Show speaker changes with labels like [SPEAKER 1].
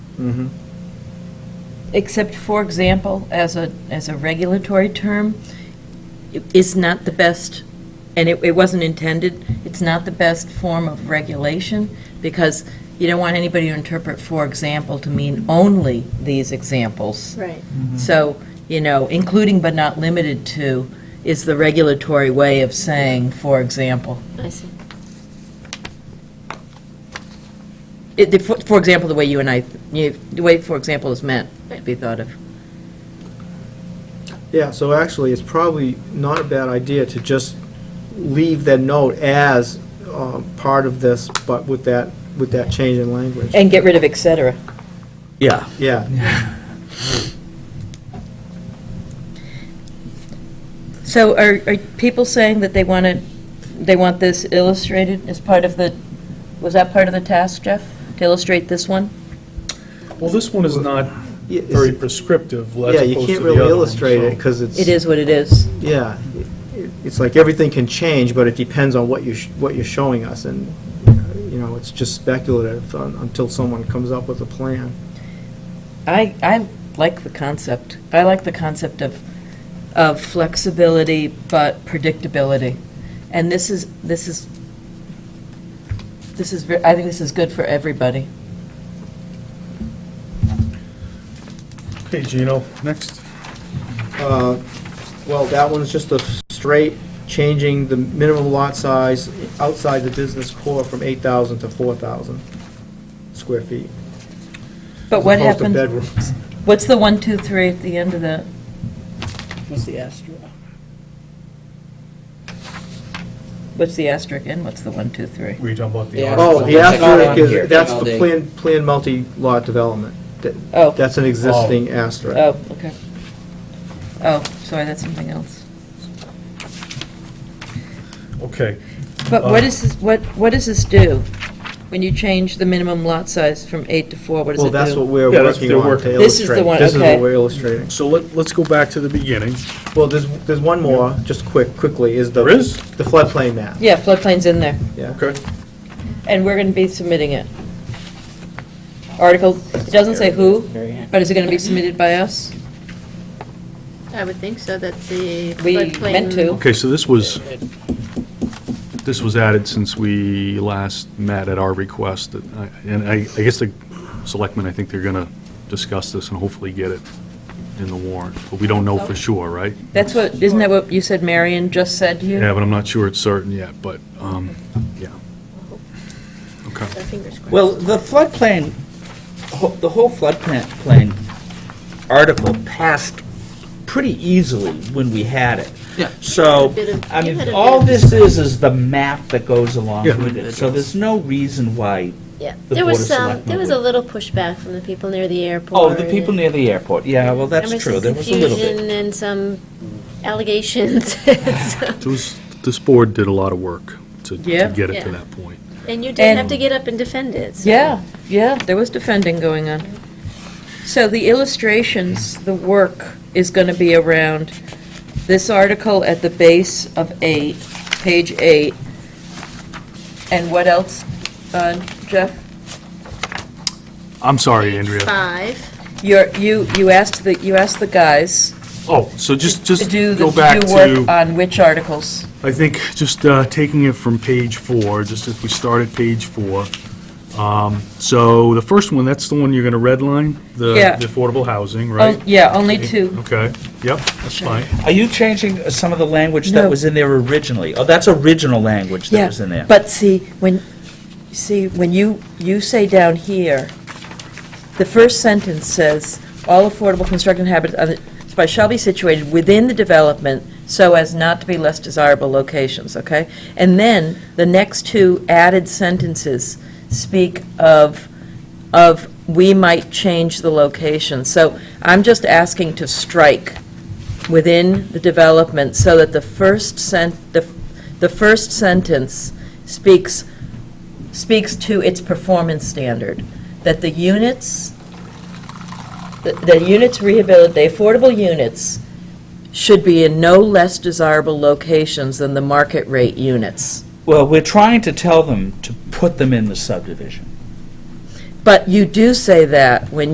[SPEAKER 1] Mhm.
[SPEAKER 2] except for example, as a, as a regulatory term, i- is not the best, and it, it wasn't intended, it's not the best form of regulation, because you don't want anybody to interpret for example to mean only these examples.
[SPEAKER 3] Right.
[SPEAKER 2] So, you know, including but not limited to is the regulatory way of saying, for example.
[SPEAKER 3] I see.
[SPEAKER 2] It, the- for for example, the way you and I, you, the way, for example, is meant to be thought of.
[SPEAKER 1] Yeah, so actually, it's probably not a bad idea to just leave that note as um, part of this, but with that, with that change in language.
[SPEAKER 2] And get rid of et cetera.
[SPEAKER 4] Yeah.
[SPEAKER 1] Yeah,
[SPEAKER 2] So are, are people saying that they want to, they want this illustrated as part of the, was that part of the task, Jeff? To illustrate this one?
[SPEAKER 5] Well, this one is not
[SPEAKER 1] Yeah, it's-
[SPEAKER 5] very prescriptive, as
[SPEAKER 1] yeah, you
[SPEAKER 5] opposed to
[SPEAKER 1] can't
[SPEAKER 5] the
[SPEAKER 1] really
[SPEAKER 5] other one,
[SPEAKER 1] illustrate it,
[SPEAKER 5] so-
[SPEAKER 1] because it's.
[SPEAKER 2] It is what it is.
[SPEAKER 1] Yeah, It- it's like everything can change, but it depends on what you, sh- what you're showing us, and, you know, it's just speculative un- until someone comes up with a plan.
[SPEAKER 2] I, I like the concept. I like the concept of, of flexibility but predictability. And this is, this is, this is, ver- I think this is good for everybody.
[SPEAKER 5] Okay, Gino, next.
[SPEAKER 1] Uh, Well, that one's just a straight changing the minimum lot size outside the business core from 8,000 to 4,000 square feet.
[SPEAKER 2] But
[SPEAKER 1] as
[SPEAKER 2] what
[SPEAKER 1] opposed to
[SPEAKER 2] happened?
[SPEAKER 1] bedrooms.
[SPEAKER 2] What's the one, two, three at the end of the,
[SPEAKER 6] was the asterisk.
[SPEAKER 2] what's the asterisk and what's the one, two, three?
[SPEAKER 5] Were you talking about the
[SPEAKER 6] Yeah.
[SPEAKER 5] article?
[SPEAKER 1] Oh, the
[SPEAKER 6] It's not
[SPEAKER 1] asterisk
[SPEAKER 6] on here.
[SPEAKER 1] is, that's
[SPEAKER 6] All
[SPEAKER 1] the
[SPEAKER 6] day.
[SPEAKER 1] planned, planned multi-lot development. That-
[SPEAKER 2] Oh.
[SPEAKER 1] That's an existing asterisk.
[SPEAKER 2] Oh, okay. Oh, sorry, that's something else.
[SPEAKER 5] Okay,
[SPEAKER 2] But what
[SPEAKER 5] Uh,
[SPEAKER 2] is, this- what, what does this do? When you change the minimum lot size from eight to four, what does it
[SPEAKER 1] Well,
[SPEAKER 2] do?
[SPEAKER 1] that's what we're
[SPEAKER 5] Yeah, that's
[SPEAKER 1] working
[SPEAKER 5] their
[SPEAKER 1] on
[SPEAKER 5] work.
[SPEAKER 1] to illustrate.
[SPEAKER 2] This is the one,
[SPEAKER 1] This is what
[SPEAKER 2] okay.
[SPEAKER 1] we're illustrating.
[SPEAKER 5] so let, let's go back to the beginning.
[SPEAKER 1] Well, there's, there's one more, just quick, quickly, is the.
[SPEAKER 5] There is?
[SPEAKER 1] The floodplain map.
[SPEAKER 2] Yeah, floodplain's in there,
[SPEAKER 1] Yeah.
[SPEAKER 5] Okay.
[SPEAKER 2] and we're gonna be submitting it. Article, it doesn't say who, but is it gonna be submitted by us?
[SPEAKER 3] I would think so, that the
[SPEAKER 2] We
[SPEAKER 3] floodplain.
[SPEAKER 2] meant to.
[SPEAKER 4] Okay, so this was, this was added since we last met at our request, that I- and I, I guess the selectmen, I think they're going to discuss this and hopefully get it in the warrant, but we don't know for sure, right?
[SPEAKER 2] That's what, isn't that what you said Marion just said to you?
[SPEAKER 4] Yeah, but I'm not sure it's certain yet, but, um, yeah. Okay.
[SPEAKER 3] So fingers crossed.
[SPEAKER 6] Well, the floodplain, ho- the whole floodplain plain article passed pretty easily when we had it.
[SPEAKER 7] Yeah.
[SPEAKER 3] You had
[SPEAKER 6] So,
[SPEAKER 3] a bit of-
[SPEAKER 6] I
[SPEAKER 3] you had
[SPEAKER 6] mean,
[SPEAKER 3] a bit
[SPEAKER 6] all
[SPEAKER 3] of
[SPEAKER 6] this is, is the map that goes along
[SPEAKER 4] Yeah.
[SPEAKER 6] with it. So there's no reason why,
[SPEAKER 3] Yeah,
[SPEAKER 6] the
[SPEAKER 3] there
[SPEAKER 6] Board
[SPEAKER 3] was
[SPEAKER 6] of
[SPEAKER 3] some,
[SPEAKER 6] Selectmen
[SPEAKER 3] there was a little pushback from the people near the airport.
[SPEAKER 6] oh, the people near the airport, yeah, well, that's true,
[SPEAKER 3] There
[SPEAKER 6] there was a little
[SPEAKER 3] was some
[SPEAKER 6] bit.
[SPEAKER 3] confusion and some allegations. So-
[SPEAKER 4] So this- This board did a lot of work to
[SPEAKER 2] Yeah.
[SPEAKER 4] to get it
[SPEAKER 3] Yeah.
[SPEAKER 4] to that point.
[SPEAKER 3] And you did
[SPEAKER 2] And-
[SPEAKER 3] have to get up and defend it. so-
[SPEAKER 2] Yeah, yeah, there was defending going on. So the illustrations, the work is going to be around this article at the base of eight, page eight, and what else, uh, Jeff?
[SPEAKER 4] I'm sorry,
[SPEAKER 3] Page
[SPEAKER 4] Andrea.
[SPEAKER 3] Five,
[SPEAKER 2] You're, you, you asked the, you asked the guys
[SPEAKER 4] Oh, so just,
[SPEAKER 2] to
[SPEAKER 4] just
[SPEAKER 2] do, the
[SPEAKER 4] go back
[SPEAKER 2] to
[SPEAKER 4] to.
[SPEAKER 2] do work uh, on which articles?
[SPEAKER 4] I think just uh, taking it from page four, just if we start at page four. Um, So the first one, that's the one you're going to redline? the-
[SPEAKER 2] Yeah.
[SPEAKER 4] The affordable housing,
[SPEAKER 2] Oh,
[SPEAKER 4] right?
[SPEAKER 2] Yeah, only two.
[SPEAKER 4] Okay, yep, that's fine.
[SPEAKER 6] Are you changing uh, some of the language
[SPEAKER 2] No.
[SPEAKER 6] that was in there originally? Oh, that's original language that
[SPEAKER 2] Yeah,
[SPEAKER 6] was in there.
[SPEAKER 2] But see, when, see, when you, you say down here, the first sentence says, "All affordable construction habits on the- by shall be situated within the development so as not to be less desirable locations," okay? And then, the next two added sentences speak of, of, "We might change the location." So I'm just asking to strike within the development so that the first sent, the the first sentence speaks, speaks to its performance standard, that the units, the- the units rehabilit, the affordable units should be in no less desirable locations than the market rate units.
[SPEAKER 6] Well, we're trying to tell them to put them in the subdivision.
[SPEAKER 2] But you do say that when